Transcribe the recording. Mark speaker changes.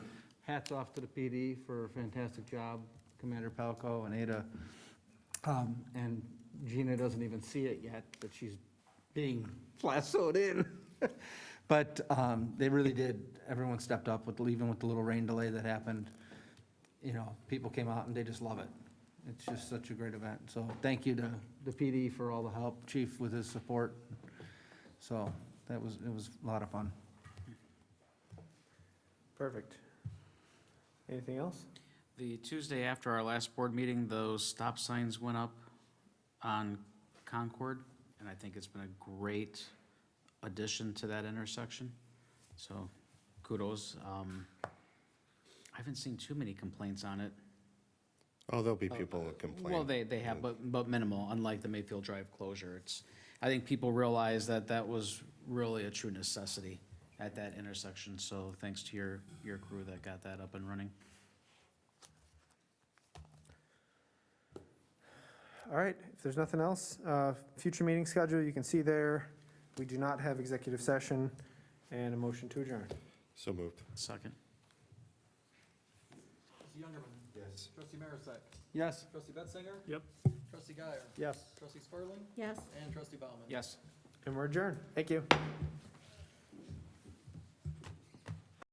Speaker 1: hats off to the PD for a fantastic job, Commander Palco and Ada. Um, And Gina doesn't even see it yet, but she's being flassoed in. But um, they really did, everyone stepped up with, even with the little rain delay that happened. You know, people came out and they just love it. It's just such a great event. So thank you to the PD for all the help, chief with his support. So that was, it was a lot of fun.
Speaker 2: Perfect. Anything else?
Speaker 3: The Tuesday after our last board meeting, those stop signs went up on Concord, and I think it's been a great addition to that intersection. So kudos. Um, I haven't seen too many complaints on it.
Speaker 4: Oh, there'll be people who complain.
Speaker 3: uh, Well, they, they have, but, but minimal, unlike the Mayfield Drive closure. It's, I think people realize that that was really a true necessity at that intersection. So thanks to your, your crew that got that up and running.
Speaker 2: All right, if there's nothing else, uh, future meeting schedule, you can see there. We do not have executive session and a motion to adjourn.
Speaker 4: So moved.
Speaker 3: Second.
Speaker 5: Trustee Youngerman.
Speaker 4: Yes.
Speaker 5: Trustee Marisak.
Speaker 1: Yes?
Speaker 5: Trustee Betzinger. Yep. Trustee Guyer.
Speaker 2: Yes.
Speaker 5: Trustee Spurling.
Speaker 6: Yes.
Speaker 5: And Trustee Bauman.
Speaker 3: Yes.
Speaker 2: And we're adjourned. Thank you.